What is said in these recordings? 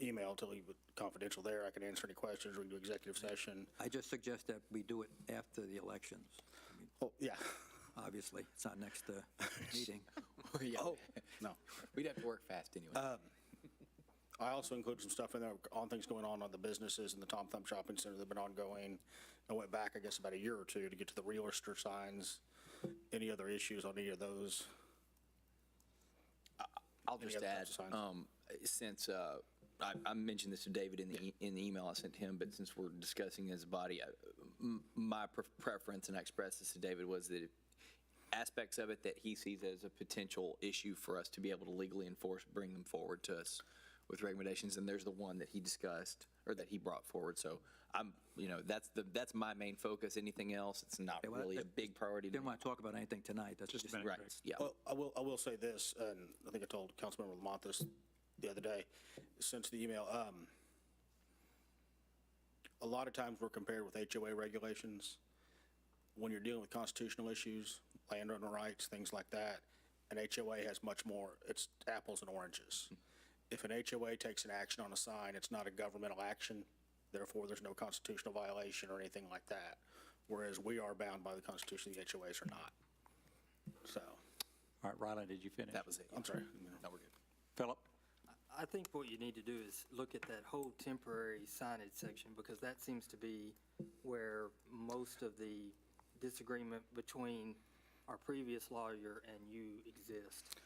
email to leave it confidential there. I can answer any questions. We can do executive session. I just suggest that we do it after the elections. I mean, Oh, yeah. Obviously, it's not next uh, meeting. Yeah. Oh, Uh, no. We'd have to work fast anyway. I also included some stuff in there on things going on on the businesses and the Tom Thumb Shopping Center that have been ongoing. I went back, I guess, about a year or two to get to the realtor signs, any other issues on any of those. I'll Any just other add, types of signs? um, since, uh, I, I mentioned this to David in the, e- in the email I sent to him, but since we're discussing his body, I- m- my pre- preference, and I expressed this to David, was that aspects of it that he sees as a potential issue for us to be able to legally enforce, bring them forward to us with recommendations, and there's the one that he discussed, or that he brought forward, so I'm, you know, that's the, that's my main focus, anything else, it's not Yeah, well, really a that- big priority to Didn't me. want to talk about anything tonight, that's just. Right, yeah. Well, I will, I will say this, and I think I told Councilmember Lamont this the other day, since the email, um, a lot of times we're compared with HOA regulations. When you're dealing with constitutional issues, landowner rights, things like that, an HOA has much more, it's apples and oranges. If an HOA takes an action on a sign, it's not a governmental action, therefore there's no constitutional violation or anything like that. Whereas we are bound by the Constitution, the HOAs are not. So. All right, Rylan, did you finish? That was it. I'm sorry. No, we're good. Philip? I think what you need to do is look at that whole temporary signage section, because that seems to be where most of the disagreement between our previous lawyer and you exist.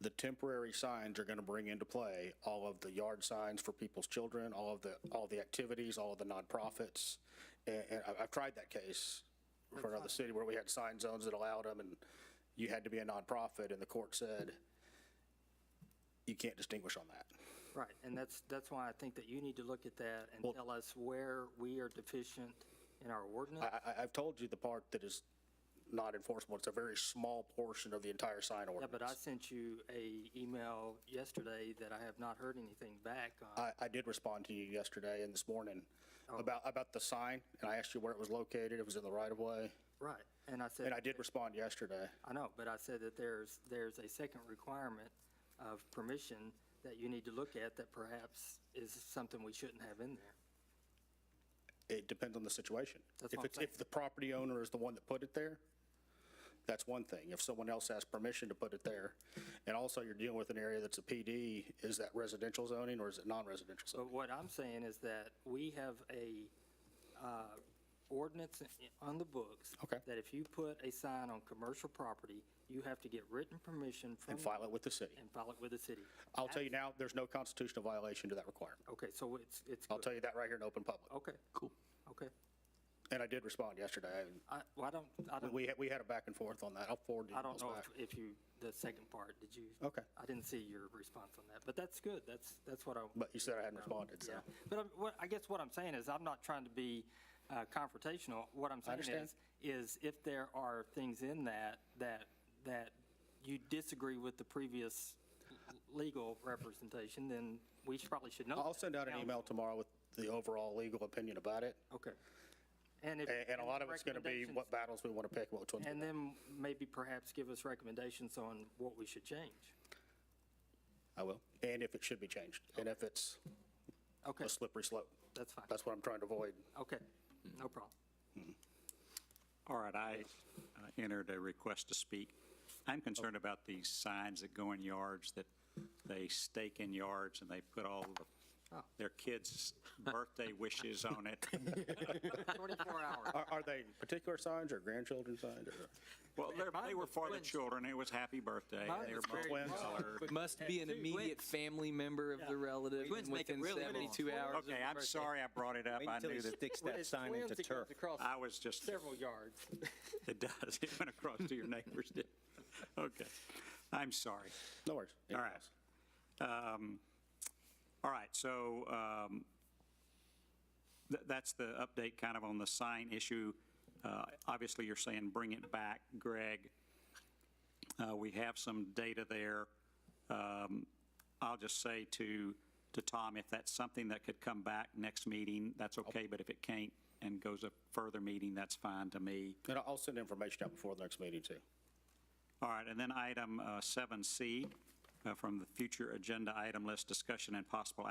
The temporary signs are going to bring into play all of the yard signs for people's children, all of the, all the activities, all of the nonprofits. And, and I- I've tried that case for another city where we had sign zones that allowed them and you had to be a nonprofit and the court said, you can't distinguish on that. Right, and that's, that's why I think that you need to look at that and Well- tell us where we are deficient in our I, ordinance. I, I've told you the part that is not enforceable. It's a very small portion of the entire sign Yeah, ordinance. but I sent you a email yesterday that I have not heard anything back on. I, I did respond to you yesterday and this morning about, about the sign, and I asked you where it was located, it was in the right of way, Right, and I said. and I did respond yesterday. I know, but I said that there's, there's a second requirement of permission that you need to look at that perhaps is something we shouldn't have in there. It depends on the situation. That's If what I'm it's, if saying. the property owner is the one that put it there, that's one thing. If someone else has permission to put it there, and also you're dealing with an area that's a PD, is that residential zoning or is it non-residential But zoning? what I'm saying is that we have a uh, ordinance on the books. Okay. That if you put a sign on commercial property, you have to get written permission from. And file it with the city. And file it with the city. I'll tell you now, there's no constitutional violation to that requirement. Okay, so it's, it's. I'll good. tell you that right here in open public. Okay, Cool. okay. And I did respond yesterday. and I, well, I don't, I we- don't, We, had- we had a back and forth on that. I'll forward the I don't emails know back. if- if you, the second part, did you? Okay. I didn't see your response on that, but that's good. That's, that's what I. But you said I hadn't responded, so. Yeah, but I'm- what, I guess what I'm saying is, I'm not trying to be uh, confrontational. What I'm saying understand. is, is if there are things in that, that, that you disagree with the previous l- legal representation, then we should- probably should know. I'll that. send out an email tomorrow with the overall legal opinion about it. Okay. And if. And, and a lot of it's going to be recommendations- what battles we want to pick, which ones. And then maybe perhaps give us recommendations on what we should change. I will. And if it should be changed, and if it's Okay, a slippery slope. that's fine. That's what I'm trying to avoid. Okay, no problem. All right, I uh, entered a request to speak. I'm concerned about these signs that go in yards, that they stake in yards, and they put all the, Oh. their kids' birthday wishes on it. 24 hours. Are, are they particular signs or grandchildren signs or Well, they're- they were for the children, it was happy birthday. Mine They were was very twins? multicolored. Must be an immediate family member of the relative Twins and make it within really long. 72 hours. of Okay, I'm birthday. sorry I brought it up. Wait I until knew he that, sticks that sign into turf. I was just Several yards. It does. It went across to your neighbors, did Okay. I'm sorry. No worries. All right. Um, All right, so um, th- that's the update kind of on the sign issue. Uh, Obviously, you're saying bring it back, Greg. Uh, We have some data there. Um, I'll just say to, to Tom, if that's something that could come back next meeting, that's okay, but if it can't and goes a further meeting, that's fine to me. And I'll send information out before the next meeting too. All right, and then item uh, 7C uh, from the future agenda item list, discussion and possible